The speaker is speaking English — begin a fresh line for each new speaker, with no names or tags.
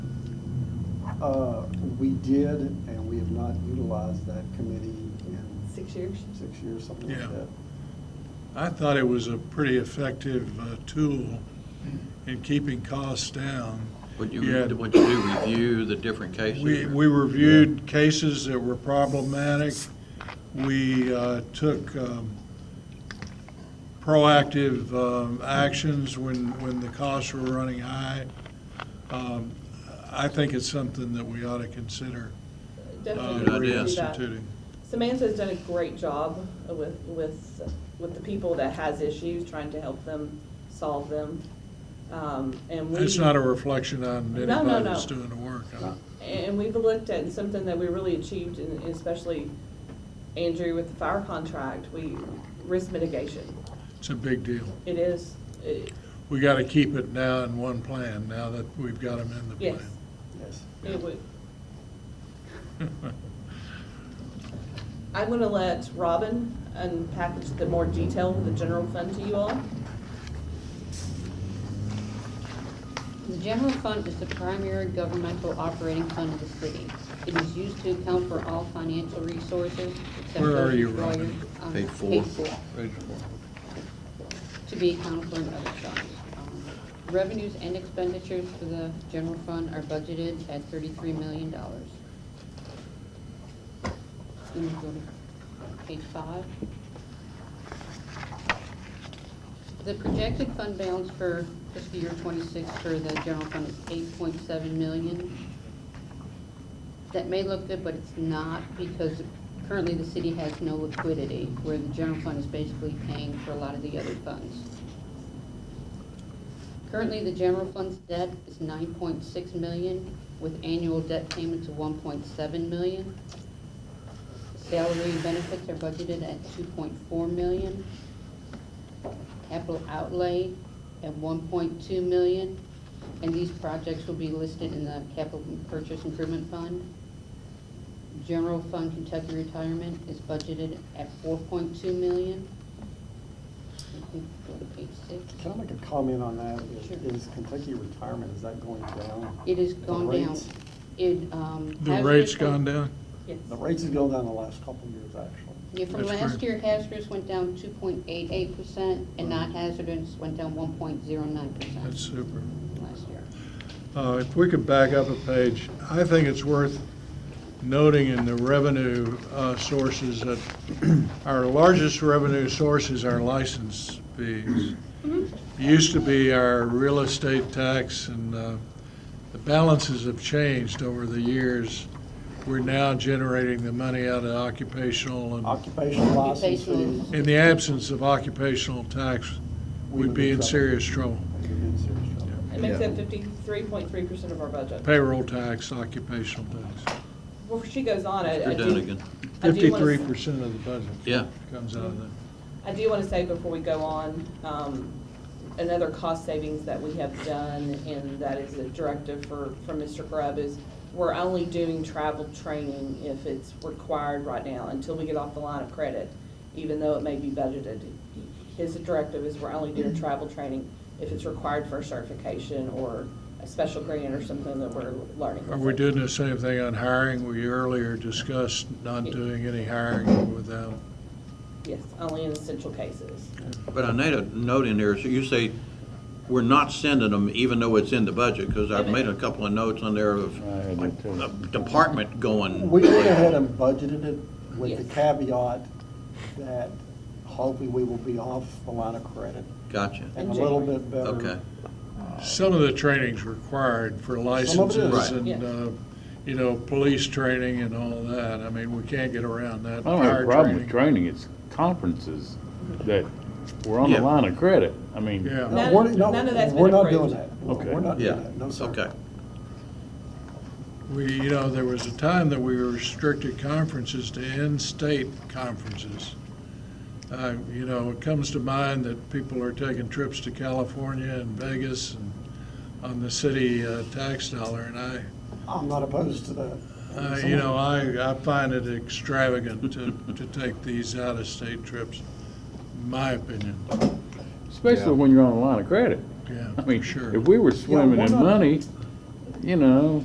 Uh, We did, and we have not utilized that committee in
Six years?
six years, something like
Yeah.
that.
I thought it was a pretty effective uh, tool in keeping costs down.
What
Yeah.
you, what you do, review the different cases?
We, we reviewed cases that were problematic. We uh, took um, proactive um, actions when, when the costs were running high. Um, I think it's something that we ought to consider uh,
Good
Definitely
idea.
do that.
reinstituting.
Samantha's done a great job with, with, with the people that has issues, trying to help them solve them. Um, And we.
It's not a reflection on
No, no,
anybody that's
no.
doing the work.
No.
And we've looked at something that we really achieved, and especially Andrew with the fire contract, we, risk mitigation.
It's a big deal.
It is, it,
We got to keep it now in one plan, now that we've got them in the
yes,
plan.
Yes.
it would. I'm gonna let Robin unpackage the more detail of the general fund to you all.
The general fund is the primary governmental operating fund of the city. It is used to account for all financial resources except
Where are
those
you,
destroyed,
Robin?
um,
Page four.
Page four,
Page four.
to be accounted for in other funds. Um, Revenues and expenditures for the general fund are budgeted at thirty-three million dollars. Then we go to page five. The projected fund balance for fiscal year twenty-six for the general fund is eight point seven million. That may look good, but it's not, because currently the city has no liquidity, where the general fund is basically paying for a lot of the other funds. Currently, the general fund's debt is nine point six million, with annual debt payments of one point seven million. Salary and benefits are budgeted at two point four million. Capital outlay at one point two million, and these projects will be listed in the capital purchase improvement fund. General fund Kentucky retirement is budgeted at four point two million. If we go to page six.
Can I make a comment on that? Is-
Sure.
Is Kentucky retirement, is that going down?
It has
The
gone down.
rates-
It, um.
The
hazardous
rate's
wa-
gone down?
Yes.
The rates have gone down the last couple of years, actually.
Yeah, from
That's
last
great.
year, hazardous went down two point eight eight percent, and
Mm-hmm.
non-hazardous went down one point zero nine
That's
percent
super.
last year.
Uh, If we could back up a page, I think it's worth noting in the revenue uh, sources that our largest revenue source is our license fees. It Used to be our real estate tax, and uh, the balances have changed over the years. We're now generating the money out of occupational, and
Occupational license
Occupational.
fees.
in the absence of occupational tax,
we
we'd
would
be in
trouble.
serious trouble.
We'd be in serious trouble.
It makes up fifty-three point three percent of our budget.
Payroll tax, occupational tax.
Before she goes on, I, I
You're
do.
done again.
I do wanna-
Fifty-three percent of the budget.
Yeah.
Comes out of that.
I do want to say before we go on, um, another cost savings that we have done, and that is a directive for, from Mr. Grubb, is we're only doing travel training if it's required right now, until we get off the line of credit, even though it may be budgeted. His directive is we're only doing travel training if it's required for a certification or a special grant or something that we're learning.
Are we doing the same thing on hiring? We earlier discussed not doing any hiring without,
Yes, only in essential cases.
But I made a note in there, so you say, we're not sending them even though it's in the budget, because I've made a couple of notes on there of
I
like
did too.
a department going.
We went ahead and budgeted it with the
Yes.
caveat that hopefully we will be off the line of credit
Gotcha,
and a
In
little
January.
bit better.
okay.
some of the training's required for
is.
licenses
Right.
and,
Yeah.
uh, you know, police training and all that. I mean, we can't get around that.
I don't have
Fire
a problem with
training.
training, it's conferences that were on the
Yeah.
line of credit. I mean,
Yeah.
No,
None-
we're, no,
none of that's
we're
been
not doing
approved.
that.
Okay.
We're not doing
Yeah,
that, no, sir.
okay.
We, you know, there was a time that we restricted conferences to in-state conferences. Uh, You know, it comes to mind that people are taking trips to California and Vegas and on the city uh, tax dollar, and I,
I'm not opposed to that.
Uh, You know, I, I find it extravagant to, to take these out-of-state trips, my opinion,
especially when you're on the line of credit.
yeah,
I mean,
sure.
if we were swimming
why
in
not?
money, you know,